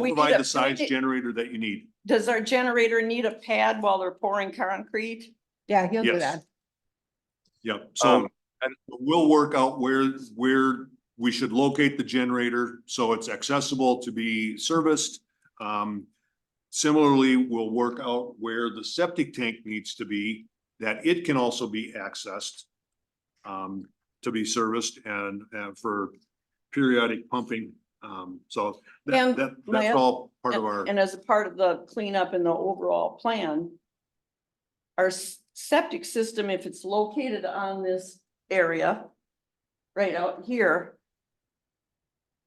We'll We need provide a- the size we- generator that you need. Does our generator need a pad while they're pouring concrete? Yeah, he'll do Yes. that. Yep, so Um, and- we'll work out where, where we should locate the generator, so it's accessible to be serviced. Um, similarly, we'll work out where the septic tank needs to be, that it can also be accessed um, to be serviced and, and for periodic pumping. Um, so that, And that, my that's oth- all part of And- our, And as a part of the cleanup and the overall plan, our s- septic system, if it's located on this area, right out here,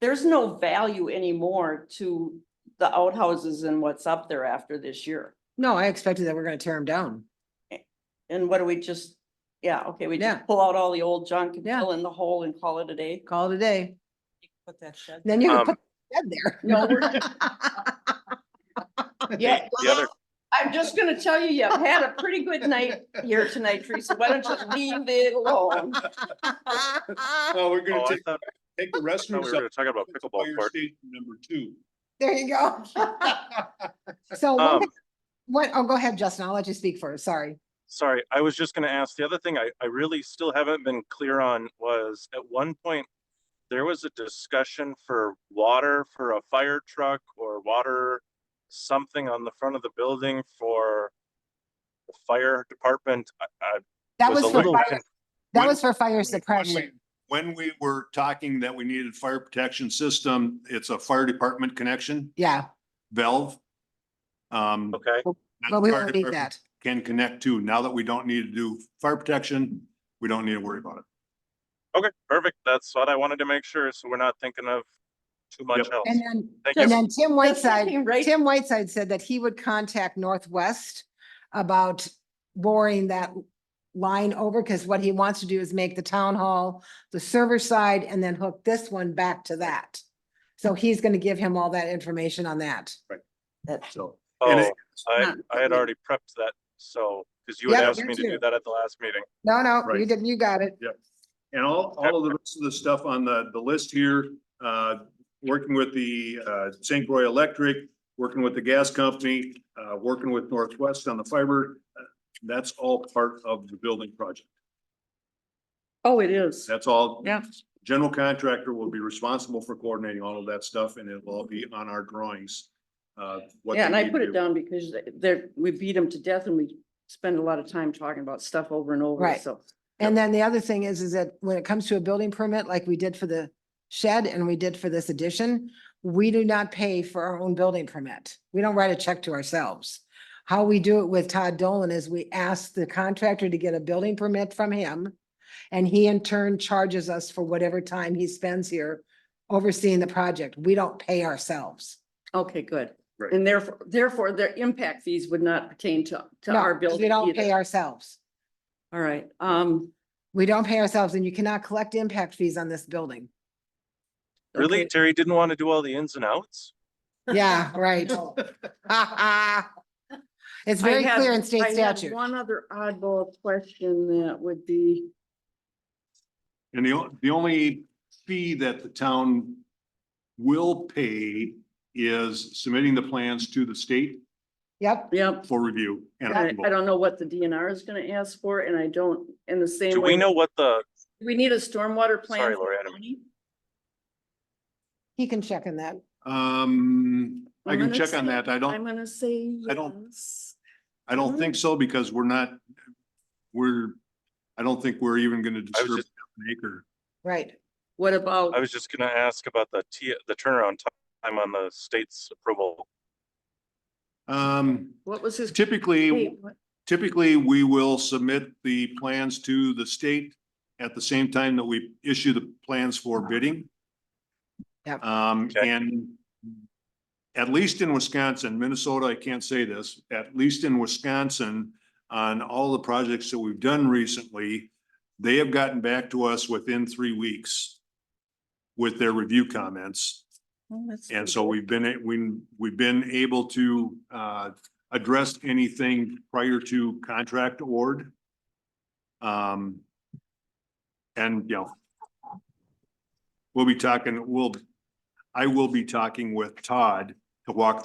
there's no value anymore to the outhouses and what's up there after this year. No, I expected that we're gonna tear him down. And what do we just, yeah, okay, we Yeah. just pull out all the old junk and Yeah. fill in the hole and call it a day. Call it a day. Put that shed. Then you can Um, put that there. No, we're Yeah, The the other, I'm just gonna tell you, you've had a pretty good night here tonight, Teresa. Why don't you leave it alone? oh, we're oh, gonna I take, thought take the I thought we restrooms were up. gonna talk about to pickleball fire court. station Number two. There you go. So one Um, thing- what, oh, go ahead, Justin. I'll let you speak first. Sorry. Sorry, I was just gonna ask, the other thing I, I really still haven't been clear on was at one point, there was a discussion for water for a fire truck or water something on the front of the building for the fire department. I, I That was was a for little, fire, con- that when- was for fire Like, when we- suppression. When we were talking that we needed fire protection system, it's a fire department connection Yeah, valve. Um. okay, that but we the fire won't need department that. Can connect to. Now that we don't need to do fire protection, we don't need to worry about it. okay, perfect. That's what I wanted to make sure, so we're not thinking of too much Yep. else. And then, Thank you. and then Tim Whiteside Right, Tim Whiteside said that he would contact Northwest about boring that line over, because what he wants to do is make the town hall, the server side, and then hook this one back to that. So he's gonna give him all that information on that. So. and Oh, it- I, not- I had already prepped that, so, because you had Yeah, asked me me to too. do that at the last meeting. No, no, you Right. did, you got it. And all, all of the rest of the stuff on the, the list here, uh, working with the, uh, St. Croix Electric, working with the gas company, uh, working with Northwest on the fiber. uh, That's all part of the building project. oh, it is. That's all. Yeah. General contractor will be responsible for coordinating all of that stuff and it will all be on our drawings. uh, what Yeah, they and I need put to it do. down because there, we beat them to death and we spend a lot of time talking about stuff over and over, Right. so. And then the other thing is, is that when it comes to a building permit, like we did for the shed and we did for this addition, we do not pay for our own building permit. We don't write a check to ourselves. How we do it with Todd Dolan is we ask the contractor to get a building permit from him. And he in turn charges us for whatever time he spends here overseeing the project. We don't pay ourselves. Okay, good. Right. And therefore, therefore their impact fees would not pertain to, to No, our 'cause building we don't pay either. ourselves. All right, um. We don't pay ourselves and you cannot collect impact fees on this building. Really, okay. Terry didn't want to do all the ins and outs? Yeah, right. It's I very had- clear in I state had statute. One other oddball question that would be, And the, o- the only fee that the town will pay is submitting the plans to the state Yep, yep, for review. and I, approval. I don't know what the DNR is gonna ask for and I don't, in the same Do way. we know what the, We need a stormwater plan. Sorry, for Lori, I the didn't- county? he can check on that. Um, I I'm can gonna check on say- that. I I'm don't, gonna say I don't- yes. I don't think so because we're not, we're, I don't think we're even gonna I was disturb just, an acre. Right. What about, I was just gonna ask about the T, the turnaround time on the state's approval. Um, what was his? typically, wait, what- typically, we will submit the plans to the state at the same time that we issue the plans for bidding. Yep. Um, Okay. and at least in Wisconsin, Minnesota, I can't say this, at least in Wisconsin, on all the projects that we've done recently, they have gotten back to us within three weeks with their review comments. oh, that's And good. so we've been, a- we, we've been able to, uh, address anything prior to contract award. Um, and, you know, we'll be talking, we'll, I will be talking with Todd to walk